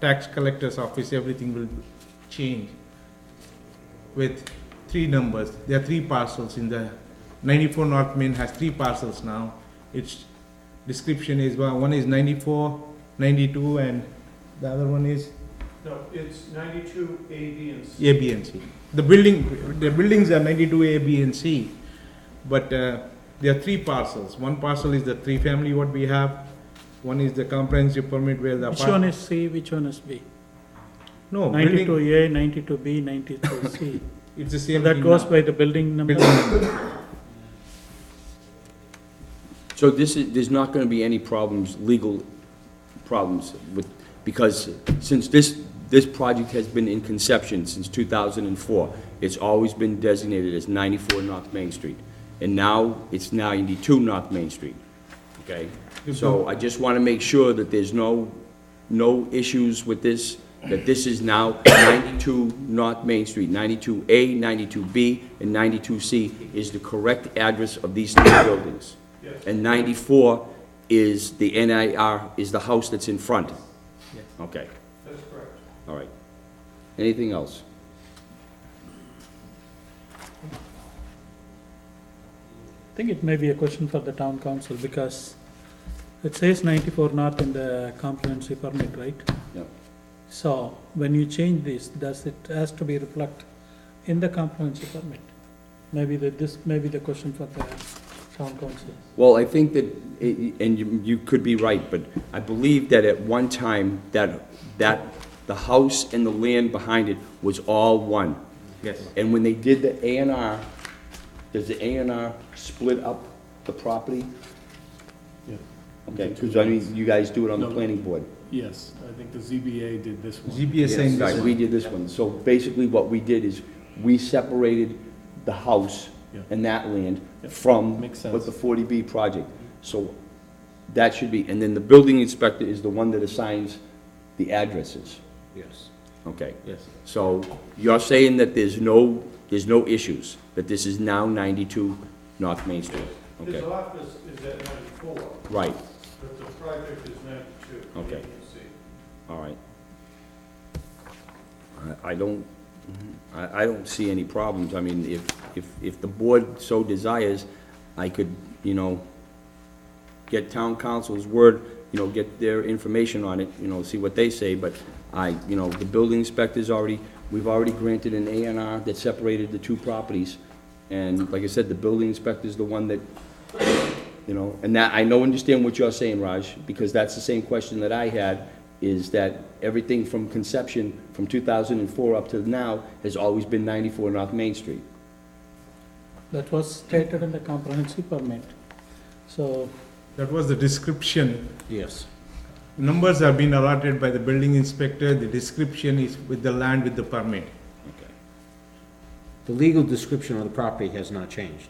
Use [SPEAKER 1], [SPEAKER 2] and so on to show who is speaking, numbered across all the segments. [SPEAKER 1] tax collector's office, everything will change with three numbers. There are three parcels in the, ninety-four North Main has three parcels now. Its description is, well, one is 94, 92, and the other one is
[SPEAKER 2] No, it's ninety-two A, B, and C.
[SPEAKER 1] A, B, and C. The building, the buildings are ninety-two A, B, and C, but uh, there are three parcels. One parcel is the three-family what we have, one is the comprehensive permit where the
[SPEAKER 3] Which one
[SPEAKER 1] apartment.
[SPEAKER 3] is C, which one is B?
[SPEAKER 1] No,
[SPEAKER 3] Ninety-two
[SPEAKER 1] Oh, building,
[SPEAKER 3] A, ninety-two B, ninety-two C.
[SPEAKER 1] it's the
[SPEAKER 3] So
[SPEAKER 1] same
[SPEAKER 3] that
[SPEAKER 1] thing
[SPEAKER 3] goes
[SPEAKER 1] now.
[SPEAKER 3] by the building number.
[SPEAKER 1] Building number.
[SPEAKER 4] So this is, there's not gonna be any problems, legal problems with, because since this, this project has been in conception since two thousand and four, it's always been designated as ninety-four North Main Street. And now, it's ninety-two North Main Street, okay? So I just wanna make sure that there's no, no issues with this, that this is now ninety-two North Main Street, ninety-two A, ninety-two B, and ninety-two C is the correct address of these three buildings.
[SPEAKER 2] Yes.
[SPEAKER 4] And 94 is the NIR, is the house that's in front?
[SPEAKER 1] Yes.
[SPEAKER 4] Okay,
[SPEAKER 2] That's correct.
[SPEAKER 4] all right. Anything else?
[SPEAKER 3] I think it may be a question for the town council because it says ninety-four north in the comprehensive permit, right?
[SPEAKER 4] Yep.
[SPEAKER 3] So when you change this, does it has to be reflect in the comprehensive permit? Maybe that this may be the question for the town council.
[SPEAKER 4] Well, I think that, i- i- and you- you could be right, but I believe that at one time, that, that the house and the land behind it was all one.
[SPEAKER 1] Yes.
[SPEAKER 4] And when they did the A and R, does the A and R split up the property?
[SPEAKER 5] Yeah.
[SPEAKER 4] Okay, because I mean, you guys do it on the
[SPEAKER 5] No.
[SPEAKER 4] planning board.
[SPEAKER 5] Yes, I think the ZBA did this one.
[SPEAKER 1] ZBA saying
[SPEAKER 4] Yes,
[SPEAKER 1] this
[SPEAKER 4] right, we did this one. So basically what we did is, we separated the house
[SPEAKER 5] Yeah.
[SPEAKER 4] and that land
[SPEAKER 5] Yeah,
[SPEAKER 4] from
[SPEAKER 5] makes
[SPEAKER 4] what
[SPEAKER 5] sense.
[SPEAKER 4] the 40B project. So that should be, and then the building inspector is the one that assigns the addresses.
[SPEAKER 1] Yes,
[SPEAKER 4] Okay,
[SPEAKER 1] yes.
[SPEAKER 4] so you're saying that there's no, there's no issues, that this is now 92 North Main Street?
[SPEAKER 2] His
[SPEAKER 4] Okay,
[SPEAKER 2] office is at ninety-four,
[SPEAKER 4] right,
[SPEAKER 2] but the project is ninety-two, A, B,
[SPEAKER 4] Okay.
[SPEAKER 2] and C.
[SPEAKER 4] all right. I- I don't, I, I don't see any problems. I mean, if, if, if the board so desires, I could, you know, get town council's word, you know, get their information on it, you know, see what they say, but I, you know, the building inspector's already, we've already granted an A and R that separated the two properties, and like I said, the building inspector's the one that, you know, and that, I know, understand what you're saying, Raj, because that's the same question that I had, is that everything from conception, from two thousand and four up to now, has always been ninety-four North Main Street.
[SPEAKER 3] That was stated in the comprehensive permit. So
[SPEAKER 1] That was the description.
[SPEAKER 4] Yes.
[SPEAKER 1] Numbers have been allotted by the building inspector, the description is with the land with the permit.
[SPEAKER 4] Okay.
[SPEAKER 6] The legal description of the property has not changed.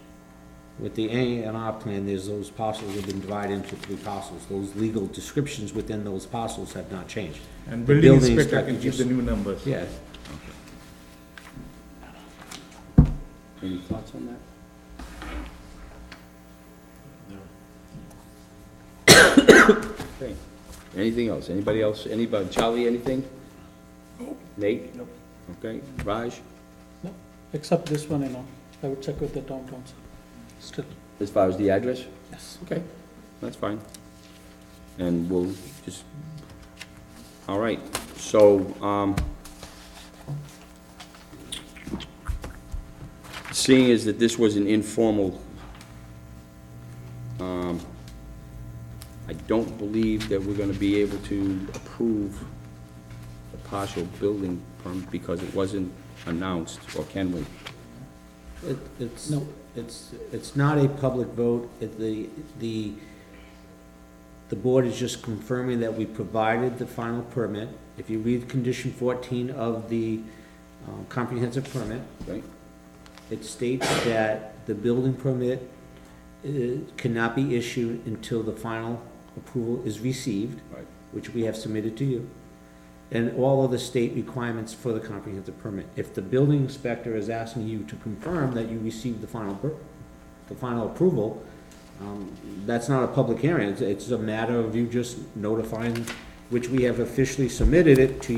[SPEAKER 6] With the A and R plan, there's those parcels have been divided into three parcels. Those legal descriptions within those parcels have not changed.
[SPEAKER 1] And
[SPEAKER 6] The
[SPEAKER 1] building
[SPEAKER 6] building
[SPEAKER 1] inspector can
[SPEAKER 6] inspector
[SPEAKER 1] give the
[SPEAKER 6] just-
[SPEAKER 1] new numbers.
[SPEAKER 6] Yeah,
[SPEAKER 4] Any thoughts on that? Okay. Anything else? Anybody else? Anybody? Charlie, anything? Nate? Nope. Okay. Raj?
[SPEAKER 3] except this one, you know, I would check with the town council still.
[SPEAKER 4] As far as the address?
[SPEAKER 3] Yes.
[SPEAKER 4] Okay. That's fine. And we'll just, all right. So, um, seeing as that this was an informal, um, I don't believe that we're gonna be able to approve the partial building permit because it wasn't announced, or can we?
[SPEAKER 6] it, it's,
[SPEAKER 3] No.
[SPEAKER 6] it's, it's not a public vote. It, the, the, the board is just confirming that we provided the final permit. If you read condition fourteen of the um, comprehensive permit,
[SPEAKER 4] Right?
[SPEAKER 6] It states that the building permit uh, cannot be issued until the final approval is received,
[SPEAKER 4] Right.
[SPEAKER 6] which we have submitted to you, and all of the state requirements for the comprehensive permit. If the building inspector is asking you to confirm that you received the final, per- the final approval, um, that's not a public hearing, it's, it's a matter of you just notifying which we have officially submitted it to